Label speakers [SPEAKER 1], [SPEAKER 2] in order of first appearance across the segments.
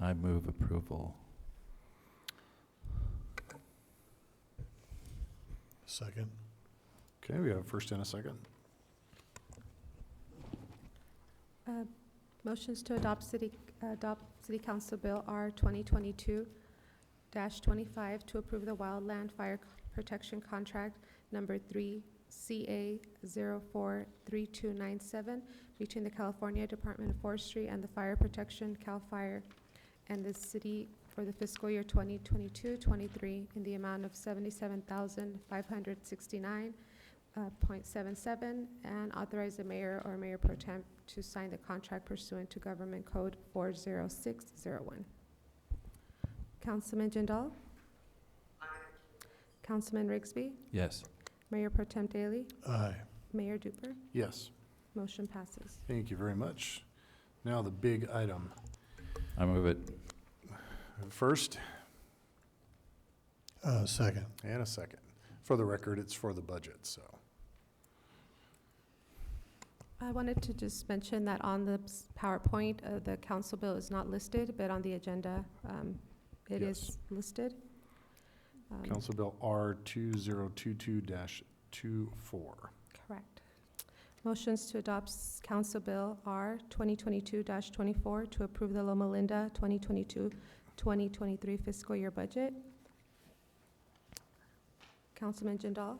[SPEAKER 1] I move approval.
[SPEAKER 2] Second.
[SPEAKER 3] Okay, we have a first and a second.
[SPEAKER 4] Motions to adopt city, adopt City Council Bill R 2022-25 to approve the Wildland Fire Protection Contract Number 3 CA 043297 between the California Department of Forestry and the Fire Protection CAL FIRE and the city for the fiscal year 2022-23 in the amount of 77569 uh, .77, and authorize the mayor or mayor pro temp to sign the contract pursuant to Government Code 40601. Councilman Jindal? Councilman Rigsby?
[SPEAKER 1] Yes.
[SPEAKER 4] Mayor pro temp Daley?
[SPEAKER 2] Aye.
[SPEAKER 4] Mayor Duper?
[SPEAKER 3] Yes,
[SPEAKER 4] Motion passes.
[SPEAKER 3] thank you very much. Now the big item.
[SPEAKER 1] I move it.
[SPEAKER 3] First
[SPEAKER 2] Uh, second.
[SPEAKER 3] and a second. For the record, it's for the budget, so.
[SPEAKER 4] I wanted to just mention that on the s- PowerPoint, uh, the council bill is not listed, but on the agenda, um, it is listed. Um,
[SPEAKER 3] Council Bill R two zero two two dash two four.
[SPEAKER 4] Correct. Motions to adopt s- Council Bill R. 2022-24 to approve the Loma Linda 2022-2023 fiscal year budget. Councilman Jindal?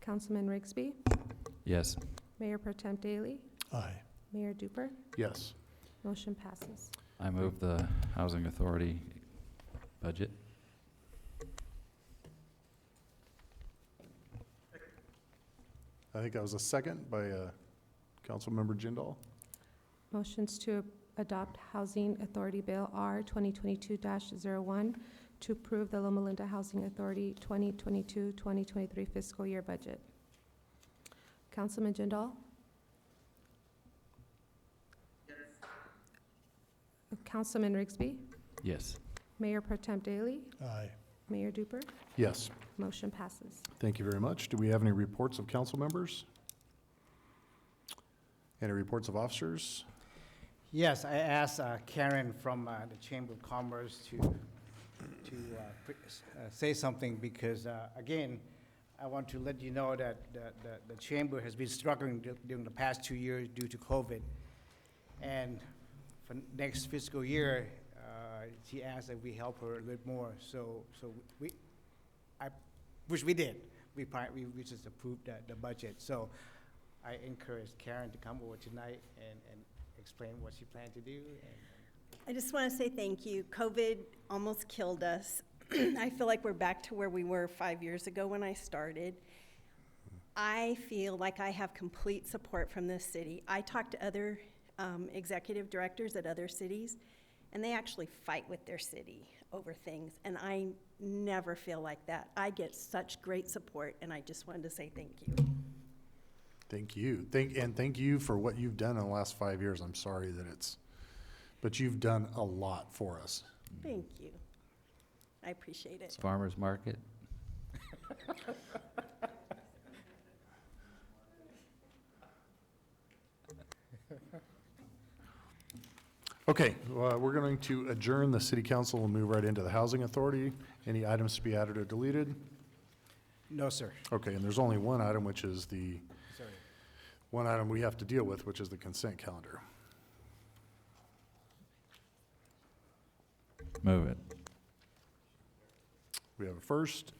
[SPEAKER 4] Councilman Rigsby?
[SPEAKER 1] Yes.
[SPEAKER 4] Mayor Pro Tem Daley?
[SPEAKER 2] Aye.
[SPEAKER 4] Mayor Duper?
[SPEAKER 3] Yes,
[SPEAKER 4] Motion passes.
[SPEAKER 1] I move the Housing Authority budget.
[SPEAKER 3] I think that was a second by, uh, Councilmember Jindal.
[SPEAKER 4] Motions to adopt Housing Authority Bill R. 2022-01 to approve the Loma Linda Housing Authority 2022-2023 fiscal year budget. Councilman Jindal? Councilman Rigsby?
[SPEAKER 1] Yes.
[SPEAKER 4] Mayor Pro Tem Daley?
[SPEAKER 2] Aye.
[SPEAKER 4] Mayor Duper?
[SPEAKER 3] Yes,
[SPEAKER 4] Motion passes.
[SPEAKER 3] thank you very much. Do we have any reports of council members? Any reports of officers?
[SPEAKER 5] Yes, I asked uh, Karen from uh, the Chamber of Commerce to, to uh, pre- s- uh, say something because, uh, again, I want to let you know that the- the the Chamber has been struggling du- during the past two years due to COVID. And for next fiscal year, uh, she asked that we help her a little more. So, so we, I, which we did. We pri- we we just approved the the budget. So I encourage Karen to come over tonight and and explain what she planned to do. and-
[SPEAKER 6] I just want to say thank you. COVID almost killed us. I feel like we're back to where we were five years ago when I started. I feel like I have complete support from this city. I talk to other um, executive directors at other cities, and they actually fight with their city over things, and I never feel like that. I get such great support, and I just wanted to say thank you.
[SPEAKER 3] Thank you. Thank, and thank you for what you've done in the last five years. I'm sorry that it's, but you've done a lot for us.
[SPEAKER 6] Thank you. I appreciate it.
[SPEAKER 1] Farmers Market.
[SPEAKER 3] Okay, well, we're going to adjourn the city council and move right into the housing authority. Any items to be added or deleted?
[SPEAKER 5] No, sir.
[SPEAKER 3] Okay, and there's only one item, which is the,
[SPEAKER 5] Sorry.
[SPEAKER 3] one item we have to deal with, which is the consent calendar.
[SPEAKER 1] Move it.
[SPEAKER 3] We have a first.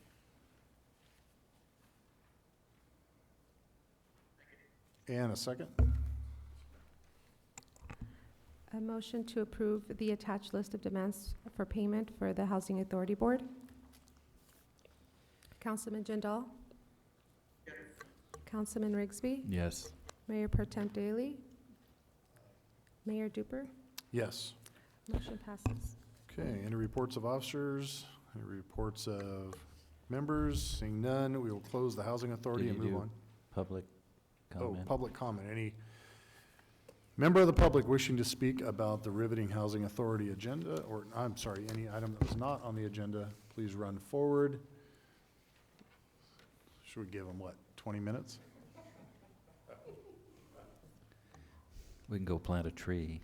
[SPEAKER 3] And a second.
[SPEAKER 4] A motion to approve the attached list of demands for payment for the Housing Authority Board. Councilman Jindal? Councilman Rigsby?
[SPEAKER 1] Yes.
[SPEAKER 4] Mayor Pro Tem Daley? Mayor Duper?
[SPEAKER 3] Yes.
[SPEAKER 4] Motion passes.
[SPEAKER 3] Okay, any reports of officers? Any reports of members? Seeing none, we will close the housing authority
[SPEAKER 1] Did
[SPEAKER 3] and
[SPEAKER 1] you
[SPEAKER 3] move
[SPEAKER 1] do
[SPEAKER 3] on.
[SPEAKER 1] Public
[SPEAKER 3] Oh,
[SPEAKER 1] comment.
[SPEAKER 3] public comment. Any member of the public wishing to speak about the riveting housing authority agenda, or, I'm sorry, any item that was not on the agenda, please run forward. Should we give them, what, 20 minutes?
[SPEAKER 1] We can go plant a tree.